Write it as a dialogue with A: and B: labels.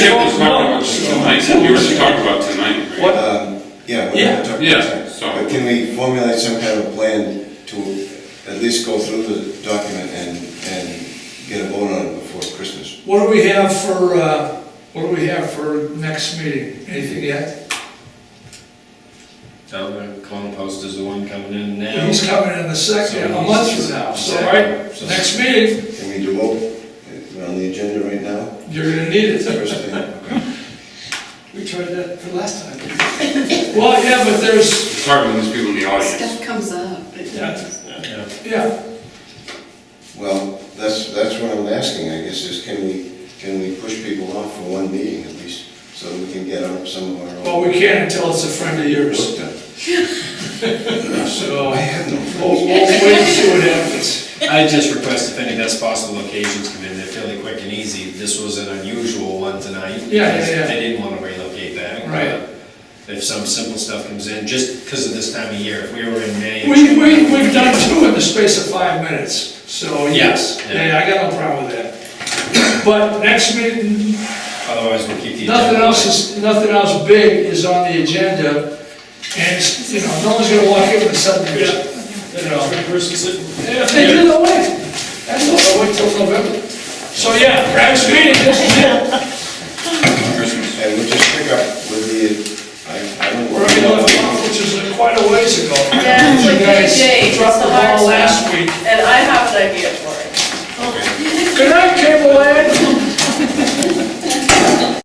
A: Yeah, so-
B: But can we formulate some kind of plan to at least go through the document and, and get a vote on it before Christmas?
C: What do we have for, uh, what do we have for next meeting? Anything yet?
D: Dover, Clone Post is the one coming in now.
C: He's coming in the second, a month from now, so, right, next meeting,
B: Can we do both? We're on the agenda right now,
C: you're gonna need it.
B: first thing.
C: We tried that for last time. Well, yeah, but there's,
A: It's hard when there's people in the audience.
E: Stuff comes up. It-
C: Yeah.
D: Yeah.
C: yeah,
B: Well, that's, that's what I'm asking, I guess, is can we, can we push people off for one meeting at least, so that we can get on some of our own.
C: well, we can't until it's a friend of yours,
B: Work done.
C: so
B: I have no
C: we'll, we'll wait and see what happens.
D: I just request if any best possible locations come in, they're fairly quick and easy. This was an unusual one tonight.
C: Yeah, yeah,
D: because
C: yeah.
D: They didn't want to relocate that.
C: Right.
D: If some simple stuff comes in, just because of this time of year, if we were in May.
C: We, we, we've done two in the space of five minutes, so yes,
D: Yeah, yeah.
C: yeah, I got no problem with that. But next meeting,
D: Otherwise, we'll keep the.
C: Nothing
D: agenda.
C: else is, nothing else big is on the agenda, and, it's, you know, no one's gonna walk in with something, you know. And if they do, they'll wait. That's all, they'll wait till November. So, yeah, Brad's meeting, this is it.
A: Christmas.
B: And we'll just pick up with the, I, I don't.
C: We're gonna have a conference, which is quite a ways ago.
F: Yeah, it's like
C: You guys
F: big days, it's
C: Dropped the
F: the hard
C: ball
F: stuff.
C: last week.
F: And I have an idea for it.
C: Good night, Cable Land.